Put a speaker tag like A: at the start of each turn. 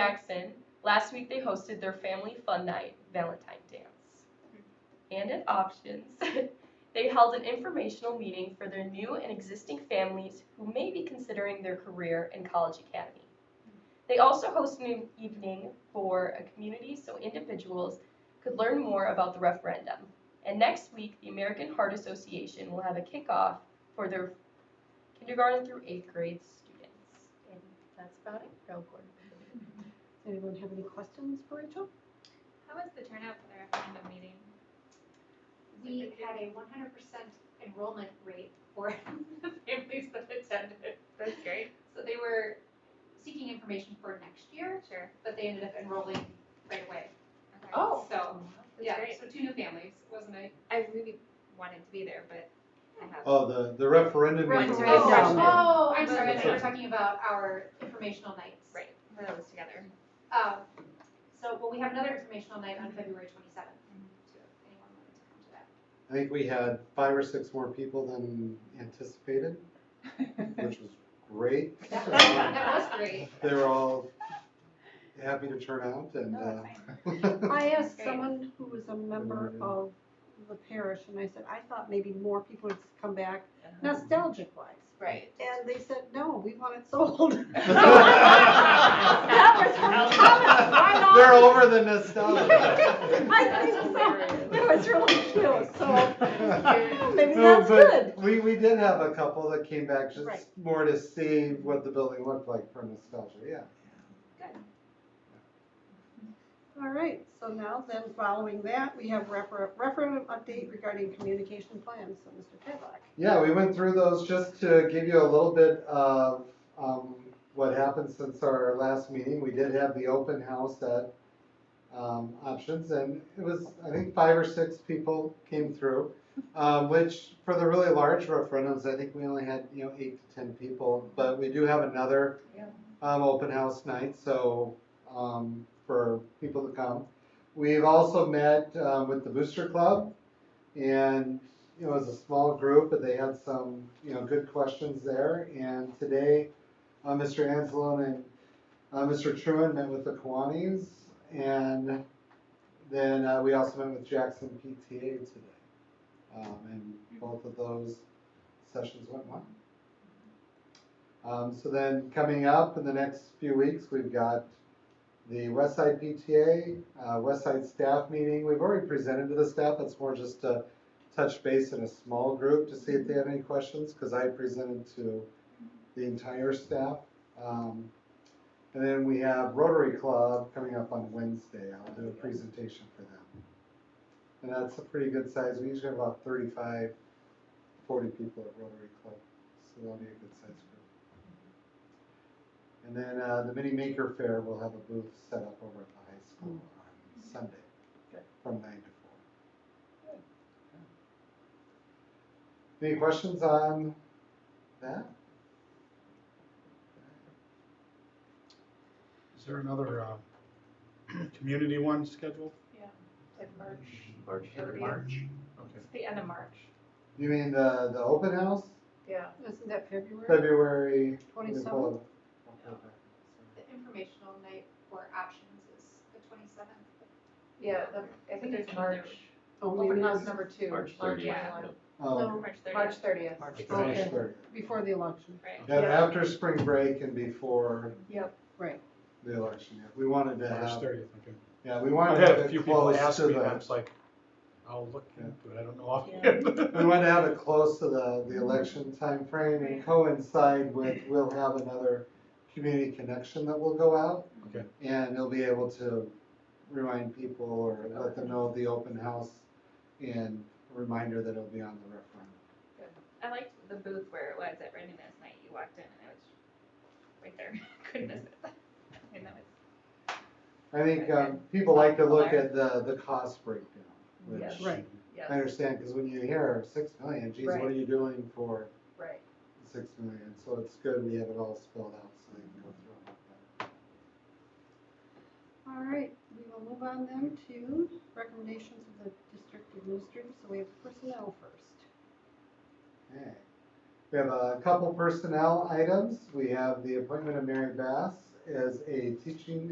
A: Jackson, last week they hosted their family fun night, Valentine Dance. And at Options, they held an informational meeting for their new and existing families who may be considering their career in College Academy. They also hosted an evening for a community so individuals could learn more about the referendum. And next week, the American Heart Association will have a kickoff for their kindergarten through eighth grade students. And that's about it, Go Gordon.
B: Anyone have any questions for Rachel?
C: How was the turnout for the referendum meeting?
D: we had a one hundred percent enrollment rate for the families that attended.
C: That's great.
D: So they were seeking information for next year,
C: Sure.
D: but they ended up enrolling right away.
C: Okay.
A: Oh.
D: So,
C: That's
D: yeah,
C: great.
D: so two new families, wasn't it?
C: I really wanted to be there, but I have.
E: Oh, the, the referendum. meeting.
C: Referendum.
B: Referendum.
D: Oh, I'm sorry, I
E: That's
D: thought you were
E: right.
D: talking about our informational nights.
C: Right. Put those together.
D: Um, so, well, we have another informational night on February twenty-seventh,
C: Mm-hmm.
D: so if anyone wanted to come to that.
E: I think we had five or six more people than anticipated,
A: 嗯
E: which was great.
D: That was,
E: Um,
D: that was great.
E: They were all happy to turn out and,
B: Oh,
C: No,
E: uh,
B: I asked
C: Great.
B: someone who was a member
E: Remember.
B: of the parish, and I said, I thought maybe more people would come back nostalgic wise.
C: Right.
B: And they said, no, we want it sold.
C: That
B: was from Thomas, right on.
E: They're over the Oh. nostalgia.
B: I think so. It was really cute, so well, maybe
E: No,
B: that's good.
E: but we, we did have a couple that came back
B: Right.
E: just more to see what the building looked like for nostalgia, yeah.
B: All right, so now then, following that, we have refer- referendum update regarding communication plans, so Mr. Tadlock.
E: Yeah, we went through those just to give you a little bit of um, what happened since our last meeting. We did have the open house at um, Options, and it was, I think, five or six people came through, um, which for the really large referendums, I think we only had, you know, eight to 10 people. But we do have another
C: Yeah.
E: um, open house night, so um, for people to come. We've also met um, with the Booster Club, and you know, it was a small group, but they had some, you know, good questions there. And today, uh, Mr. Anzalone and uh, Mr. Truman met with the Kiwanis, and then uh, we also met with Jackson PTA today. Um, and both of those sessions went well. Um, so then coming up in the next few weeks, we've got the West Side PTA, uh, West Side staff meeting. We've already presented to the staff. It's more just a touch base in a small group to see if they have any questions, because I presented to the entire staff. Um, And then we have Rotary Club coming up on Wednesday. I'll do a presentation for them. And that's a pretty good size. We usually have about 35, 40 people at Rotary Club, so that'll be a good size group. And then uh, the Mini Maker Fair, will have a booth set up over at the high school on Sunday from nine to four. Any questions on that?
F: Is there another, uh, community one scheduled?
C: Like March.
G: March,
C: It would be-
G: March.
F: Okay.
C: It's the end of March.
E: You mean the, the open house,
C: Yeah.
B: Isn't that February
E: February?
B: 27th?
D: The informational night for options is the twenty-seventh.
H: Yeah, the, I think it's March,
B: Oh, we
H: open house
B: missed-
H: number two.
G: March thirtieth.
H: 21,
E: Oh,
B: No,
C: March
H: March
C: thirtieth.
H: thirtieth.
G: March
B: Okay.
E: March third.
B: before the election.
C: Right.
E: That after spring break and before
B: Right.
E: the election, yeah. We wanted to
F: March
E: have,
F: thirtieth, okay.
E: yeah, we
F: I
E: wanted to
F: had
E: have
F: a
E: it
F: few people
E: close
F: ask
E: to
F: me, and I
E: the,
F: was like, I'll look into it, I don't know
E: we
F: offhand.
E: wanted to have it close to the, the election timeframe and coincide with, we'll have another community connection that will go out.
F: Okay.
E: And they'll be able to remind people or let them know of the open house and a reminder that it'll be on the referendum.
C: I liked the booth where it was at Raymond last night. You walked in and it was right there. Couldn't miss it. I mean, that was.
E: I think, um, people like to look at the, the cost breakdown, which
H: Yes.
B: Right.
E: I understand, because when you hear six million, geez, what are
H: Right.
E: you doing for
H: Right.
E: six million? So it's good we have it all spelled out so they can go through it.
B: All right, we will move on then to recommendations of the district administrator, so we have personnel first.
E: Okay. We have a couple personnel items. We have the appointment of Mary Bass as a teaching